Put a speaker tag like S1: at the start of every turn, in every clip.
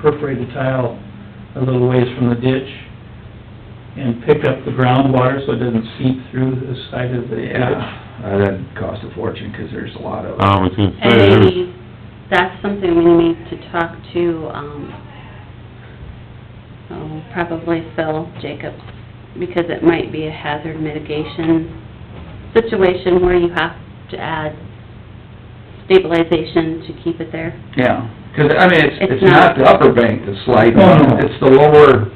S1: perforate the tile a little ways from the ditch and pick up the groundwater so it doesn't seep through the side of the ditch.
S2: Yeah, uh, that'd cost a fortune, 'cause there's a lot of,
S3: I was gonna say,
S4: And
S3: there was-
S4: maybe that's something we need to talk to, um, oh, probably Phil Jacobs, because it might be a hazard mitigation situation where you have to add stabilization to keep it there.
S2: yeah. 'Cause, I mean, it's,
S4: It's
S2: it's not
S4: not-
S2: the upper bank that's sliding,
S1: No, no.
S2: it's the lower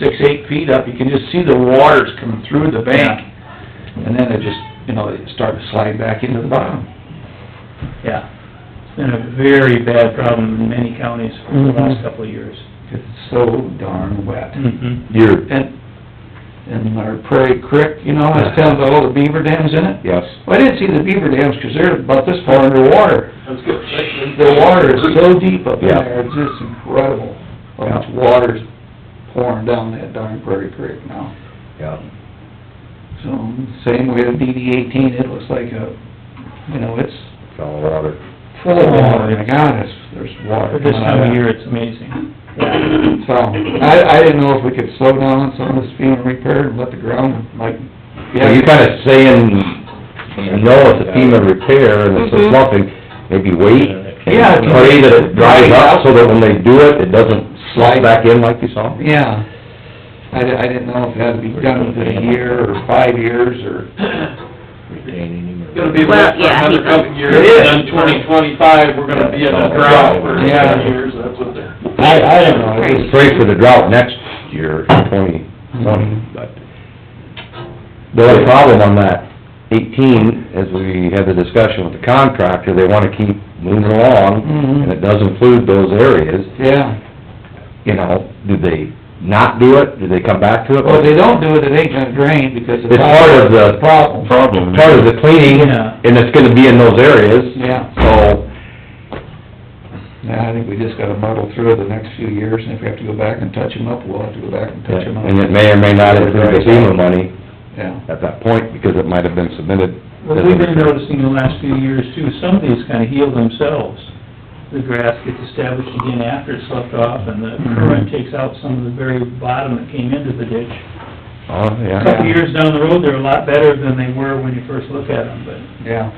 S2: six, eight feet up, you can just see the waters coming through the bank. And then it just, you know, it started sliding back into the bottom.
S1: Yeah. It's been a very bad problem in many counties for the last
S2: Mm-hmm.
S1: couple of years.
S2: 'Cause it's so darn wet.
S1: Mm-hmm.
S3: you're,
S2: And, and our Prairie Creek, you know, has tons of all the beaver dams in it.
S3: yes,
S2: Well, I didn't see the beaver dams, 'cause they're about this far underwater. The water is so deep up in
S3: Yeah.
S2: there, it's just incredible, how much water's pouring down that darn Prairie Creek now.
S3: yeah,
S2: So, same way with DD eighteen, it looks like a, you know, it's
S3: it's all water.
S2: full of water, my God, it's, there's water
S1: For this
S2: coming out
S1: time
S2: of
S1: of year,
S2: it.
S1: it's amazing.
S2: So, I, I didn't know if we could slow down some of this being repaired and let the ground, like,
S3: So
S2: yeah.
S3: you're kinda saying, you know, it's a FEMA repair and it's a
S4: Mhm.
S3: something, maybe wait and
S2: Yeah.
S3: pray that it dries up so that when they do it, it doesn't slide back in like you saw?
S2: Yeah, I, di- I didn't know if it had to be done within a year or five years or,
S5: Gonna be
S4: Well,
S5: left for
S4: yeah,
S5: another
S4: he-
S5: couple of years,
S2: It is.
S5: and then twenty twenty-five, we're gonna be in a drought for
S2: Yeah.
S5: ten years, that's what they're.
S2: I, I don't know. it was-
S3: Pray for the drought next year, twenty twenty,
S2: Mm-hmm.
S3: but... The only problem on that eighteen, as we had the discussion with the contractor, they wanna keep moving along, and
S2: Mhm,
S3: it does include those areas,
S2: yeah.
S3: you know, do they not do it, do they come back to it?
S2: Well, if they don't do it, it ain't gonna drain because it's...
S3: It's part of the-
S2: Problem,
S6: problem.
S3: Part of the cleaning,
S1: Yeah.
S3: and it's gonna be in those areas,
S2: yeah.
S3: so,
S2: Yeah, I think we just gotta muddle through the next few years, and if we have to go back and touch them up, we'll have to go back and touch them up.
S3: and it may or may not include the FEMA money
S2: Yeah,
S3: at that point, because it might have been submitted.
S1: Well, we've been noticing the last few years too, some of these kinda heal themselves. The grass gets established again after it's left off and the current takes out some of the very bottom that came into the ditch.
S3: Oh,
S1: A
S3: yeah,
S1: couple years down the road, they're a lot better than they were when you first look at them, but
S2: yeah,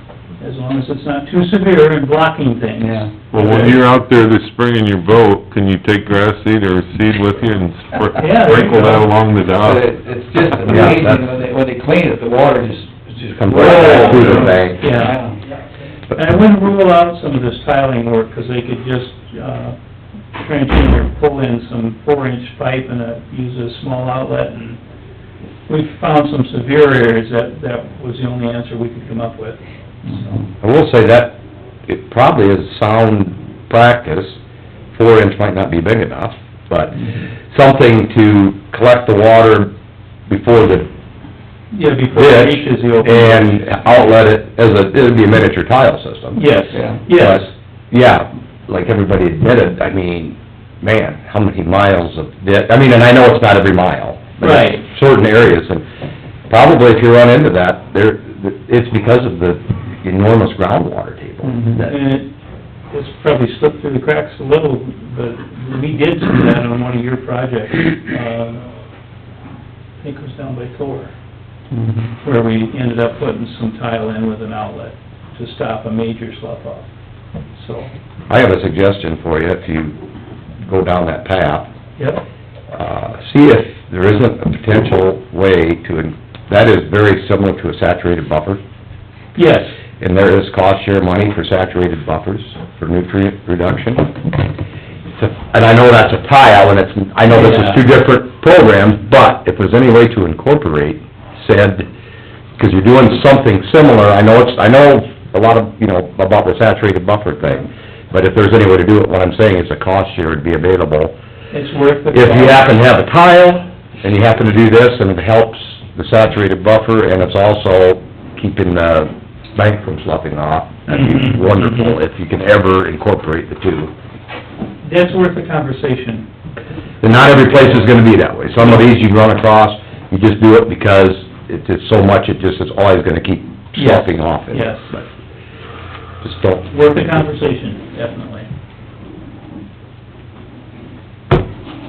S1: as long as it's not too severe and blocking things.
S2: yeah.
S6: Well, when you're out there this spring in your boat, can you take grass seed or seed with you and spr-
S1: Yeah, there you
S6: sprinkle that
S1: go.
S6: along the
S2: But
S6: dock?
S2: it, it's just
S3: Oh. Yeah,
S2: amazing,
S3: that's-
S2: when they, when they clean it, the water just, it's just...
S3: Comes right back through the bank.
S1: Yeah, and I wouldn't rule out some of this tiling work, 'cause they could just, uh, trench in or pull in some four-inch pipe and, uh, use a small outlet and we found some severe areas that, that was the only answer we could come up with.
S2: Mhm.
S3: I will say that, it probably is sound practice, four inch might not be big enough, but
S1: Mm-hmm.
S3: something to collect the water before the
S1: Yeah, before it
S3: ditch
S1: reaches the open.
S3: and outlet it as a, it'd be a miniature tile system.
S1: Yes,
S2: Yeah.
S1: yes.
S3: But, Yeah, like everybody admitted, I mean, man, how many miles of ditch, I mean, and I know it's not every mile. but it's
S1: Right.
S3: Certain areas, and probably if you run into that, there, it's because of the enormous groundwater table
S2: Mhm.
S3: that
S1: And it, it's probably slipped through the cracks a little, but we did see that on one of your projects. Uh, I think it was down by Thor,
S3: Mm-hmm.
S2: Mhm.
S1: where we ended up putting some tile in with an outlet to stop a major slough off. So,
S3: I have a suggestion for you, if you go down that path,
S1: yep,
S3: uh, see if there isn't a potential way to, that is very similar to a saturated buffer,
S1: yes,
S3: and there is cost share money for saturated buffers, for nutrient reduction. It's a- And I know that's a tile, and it's, I know this is two different programs, but if there's any way to incorporate said, because you're doing something similar, I know it's, I know a lot of, you know, about the saturated buffer thing, but if there's any way to do it, what I'm saying is a cost share would be available
S1: it's worth the...
S3: if you happen to have a tile, and you happen to do this, and it helps the saturated buffer, and it's also keeping the bank from sloughing off, that'd be wonderful if you can ever incorporate the two.
S1: That's worth the conversation.
S3: And not every place is gonna be that way. Some of these you run across, you just do it because it's just so much, it just is always gonna keep sloughing off. it.
S1: Yes.
S3: But Just don't...
S1: Worth the conversation, definitely.